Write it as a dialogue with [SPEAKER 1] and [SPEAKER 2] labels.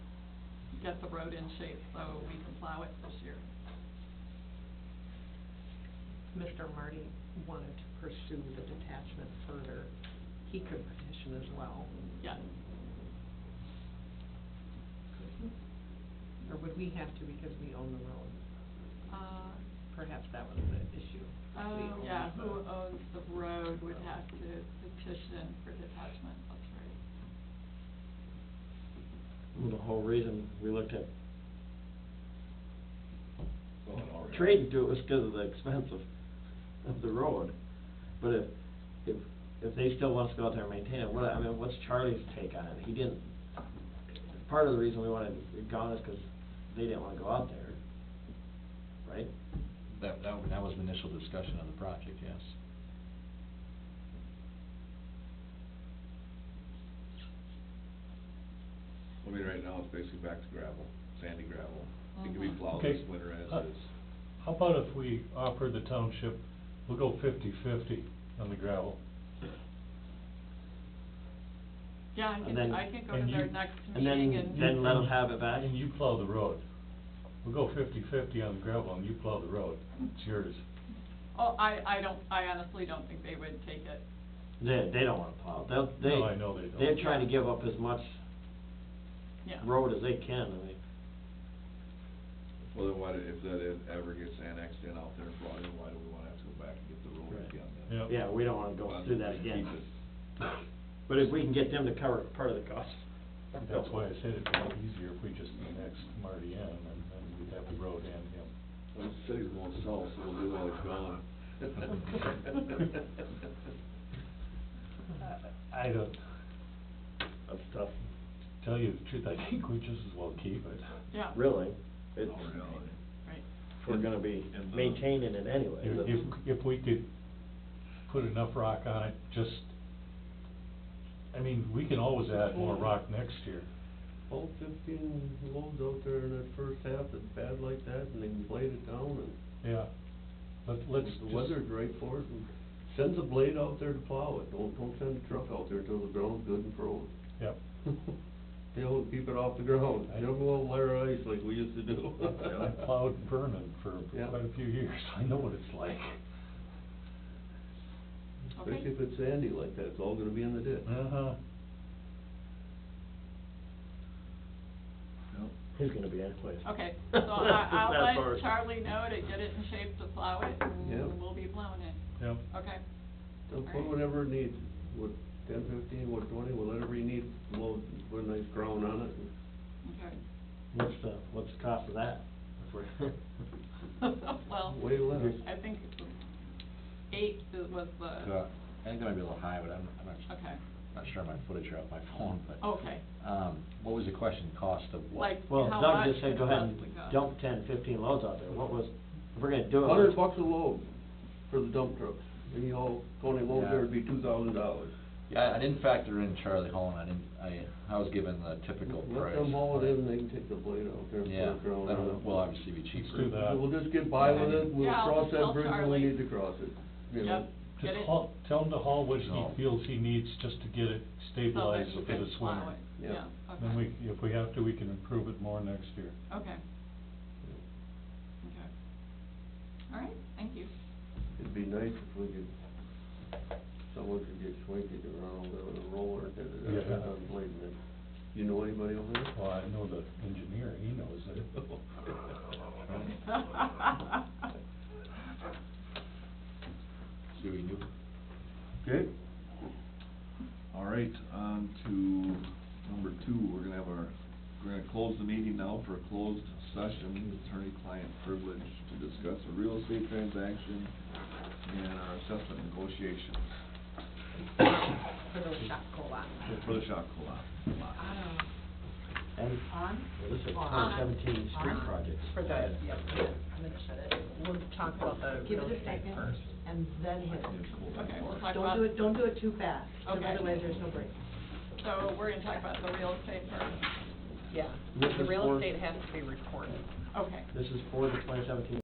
[SPEAKER 1] get the road in shape so we can plow it this year.
[SPEAKER 2] Mr. Marty wanted to pursue the detachment further, he could petition as well,
[SPEAKER 1] Yeah,
[SPEAKER 2] or would we have to because we own the road?
[SPEAKER 1] uh,
[SPEAKER 2] Perhaps that was the issue. We
[SPEAKER 1] oh,
[SPEAKER 2] own
[SPEAKER 1] yeah,
[SPEAKER 2] the-
[SPEAKER 1] who owns the road would have to petition for detachment, that's right.
[SPEAKER 3] The whole reason we looked at
[SPEAKER 4] Well, it already-
[SPEAKER 3] trading to it was because of the expense of, of the road. But if, if, if they still want us to go out there and maintain it, what, I mean, what's Charlie's take on it? He didn't, part of the reason we wanted it gone is because they didn't want to go out there, right?
[SPEAKER 4] That, that, that was the initial discussion of the project, yes.
[SPEAKER 5] I mean, right now, it's basically back to gravel, sandy gravel. It can be
[SPEAKER 1] Mhm.
[SPEAKER 4] Uh-huh.
[SPEAKER 5] plowed
[SPEAKER 6] Okay.
[SPEAKER 5] this winter as
[SPEAKER 6] Uh,
[SPEAKER 5] is.
[SPEAKER 6] How about if we offer the township, we'll go fifty-fifty on the gravel?
[SPEAKER 1] Yeah, I
[SPEAKER 3] And
[SPEAKER 1] can,
[SPEAKER 3] then-
[SPEAKER 1] I can go
[SPEAKER 6] and
[SPEAKER 1] to their
[SPEAKER 6] you-
[SPEAKER 1] next
[SPEAKER 3] And
[SPEAKER 1] meeting
[SPEAKER 3] then,
[SPEAKER 1] and.
[SPEAKER 3] then let them have it back.
[SPEAKER 6] And you plow the road. We'll go fifty-fifty on the gravel and you plow the road. It's yours.
[SPEAKER 1] Oh, I, I don't, I honestly don't think they would take it.
[SPEAKER 3] They, they don't want to plow. They'll, they.
[SPEAKER 6] No, I know they don't.
[SPEAKER 3] They're trying to give up as much
[SPEAKER 1] Yeah.
[SPEAKER 3] road as they can, I mean.
[SPEAKER 5] Well, then why, do- if that is- ever gets annexed in out there and brought in, why do we wanna have to go back and get the road
[SPEAKER 3] Right.
[SPEAKER 5] again then?
[SPEAKER 6] Yeah.
[SPEAKER 3] Yeah, we don't wanna go
[SPEAKER 5] Why
[SPEAKER 3] through
[SPEAKER 5] don't
[SPEAKER 3] that
[SPEAKER 5] we
[SPEAKER 3] again.
[SPEAKER 5] keep it?
[SPEAKER 3] But if we can get them to cover part of the cost.
[SPEAKER 6] That's why I said it'd be a lot easier if we just annexed Marty in and then we'd have the road and him.
[SPEAKER 5] Well, the city's going south, so we'll do all it's gone.
[SPEAKER 6] I don't,
[SPEAKER 3] That's tough.
[SPEAKER 6] tell you the truth, I think we just as well keep it.
[SPEAKER 1] Yeah,
[SPEAKER 3] Really, it's,
[SPEAKER 5] Oh, really?
[SPEAKER 1] right.
[SPEAKER 3] we're gonna be
[SPEAKER 5] And the-
[SPEAKER 3] maintaining it anyway.
[SPEAKER 6] If, if, if we could put enough rock on it, just, I mean, we can always add more rock next year.
[SPEAKER 7] all fifteen loads out there in that first half that's bad like that, and they can blade it down, and
[SPEAKER 6] Yeah, but let's
[SPEAKER 7] if
[SPEAKER 6] just.
[SPEAKER 7] the weather's right for it, and send the blade out there to plow it, don't, don't send a truck out there till the ground's good and frozen.
[SPEAKER 6] Yep,
[SPEAKER 7] They'll keep it off the ground,
[SPEAKER 6] I-
[SPEAKER 7] they'll go out layer ice like we used to do.
[SPEAKER 6] I plowed Vernon for
[SPEAKER 7] Yeah.
[SPEAKER 6] quite a few years, I know what it's like.
[SPEAKER 1] Okay.
[SPEAKER 7] Especially if it's sandy like that, it's all gonna be in the ditch.
[SPEAKER 6] Uh-huh,
[SPEAKER 5] No.
[SPEAKER 3] He's gonna be anyways.
[SPEAKER 1] Okay, so I, I'll let Charlie know to get it in shape to plow it,
[SPEAKER 7] Yeah.
[SPEAKER 1] and we'll be plowing it,
[SPEAKER 6] yep,
[SPEAKER 1] okay?
[SPEAKER 7] They'll
[SPEAKER 1] All
[SPEAKER 7] put
[SPEAKER 1] right.
[SPEAKER 7] whatever it needs, what, ten, fifteen, what, twenty, whatever you need, load, put a nice ground on it, and
[SPEAKER 1] Okay.
[SPEAKER 3] What's the, what's the cost of that? If we're-
[SPEAKER 1] Well,
[SPEAKER 7] Way less.
[SPEAKER 1] I think it's eight is- was the,
[SPEAKER 4] So, I think that might uh, be a little high, but I'm, I'm not,
[SPEAKER 1] okay,
[SPEAKER 4] not sure my footage are on my phone, but.
[SPEAKER 1] okay,
[SPEAKER 4] Um, what was the question, cost of what?
[SPEAKER 1] Oh. like,
[SPEAKER 3] Well,
[SPEAKER 1] how
[SPEAKER 3] Doug
[SPEAKER 1] much
[SPEAKER 3] just said,
[SPEAKER 1] it
[SPEAKER 3] go ahead and
[SPEAKER 1] possibly costs.
[SPEAKER 3] dump ten, fifteen loads out there, what was, if we're gonna do it.
[SPEAKER 4] Uh-huh.
[SPEAKER 7] Hundred
[SPEAKER 3] let's-
[SPEAKER 7] bucks a load for the dump trucks. Any haul, twenty loads there would be two thousand dollars.
[SPEAKER 4] Yeah, I didn't factor in Charlie Hall, and I didn't, I, I was given the typical price.
[SPEAKER 7] Let them haul it in, they can take the blade out there and put
[SPEAKER 4] Yeah,
[SPEAKER 7] it ground on
[SPEAKER 4] that'll,
[SPEAKER 7] it.
[SPEAKER 4] will obviously be cheaper.
[SPEAKER 6] do that.
[SPEAKER 7] We'll just get by with it, we'll
[SPEAKER 1] Yeah, I'll
[SPEAKER 7] cross
[SPEAKER 1] tell
[SPEAKER 7] that bridge when we
[SPEAKER 1] Charlie.
[SPEAKER 7] need to cross it, you know?
[SPEAKER 1] Yep, get
[SPEAKER 6] just
[SPEAKER 1] it.
[SPEAKER 6] haul, tell him to haul what
[SPEAKER 4] No.
[SPEAKER 6] he feels he needs just to get
[SPEAKER 1] so that
[SPEAKER 6] it stabilized
[SPEAKER 1] you
[SPEAKER 6] for
[SPEAKER 1] can
[SPEAKER 6] this
[SPEAKER 1] Oh, plow
[SPEAKER 6] winter.
[SPEAKER 1] it.
[SPEAKER 7] Yeah.
[SPEAKER 1] Yeah,
[SPEAKER 6] Then
[SPEAKER 1] okay,
[SPEAKER 6] we, if we have to, we can improve it more next year.
[SPEAKER 1] okay. Okay. All right, thank you.
[SPEAKER 7] It'd be nice if we could, someone could get Schwenky to run over there with a roller and hit it out there
[SPEAKER 6] Yeah.
[SPEAKER 7] on blade and then- You know anybody over there?
[SPEAKER 6] Well, I know the engineer, he knows it.
[SPEAKER 4] See what we can do.
[SPEAKER 5] Okay. All right, on to number two, we're gonna have our, we're gonna close the meeting now for a closed session, attorney-client privilege to discuss a real estate transaction and our assessment negotiations
[SPEAKER 2] For those shot co-op.
[SPEAKER 5] for the shop co-op.
[SPEAKER 3] And
[SPEAKER 2] On?
[SPEAKER 3] this is
[SPEAKER 2] On.
[SPEAKER 3] twenty seventeen street
[SPEAKER 2] On.
[SPEAKER 3] project.
[SPEAKER 2] For the, yep, I'm interested. We'll talk about the Uh, real estate first. And then hit
[SPEAKER 1] Okay, we'll talk
[SPEAKER 2] Don't
[SPEAKER 1] about,
[SPEAKER 2] do it, don't do it too fast, 'cause
[SPEAKER 1] Okay.
[SPEAKER 2] otherwise there's no break.
[SPEAKER 1] so we're gonna talk about the real estate first,
[SPEAKER 2] Yeah,
[SPEAKER 3] This is for-
[SPEAKER 2] has to be recorded.
[SPEAKER 1] okay.
[SPEAKER 3] This is for the twenty seventeen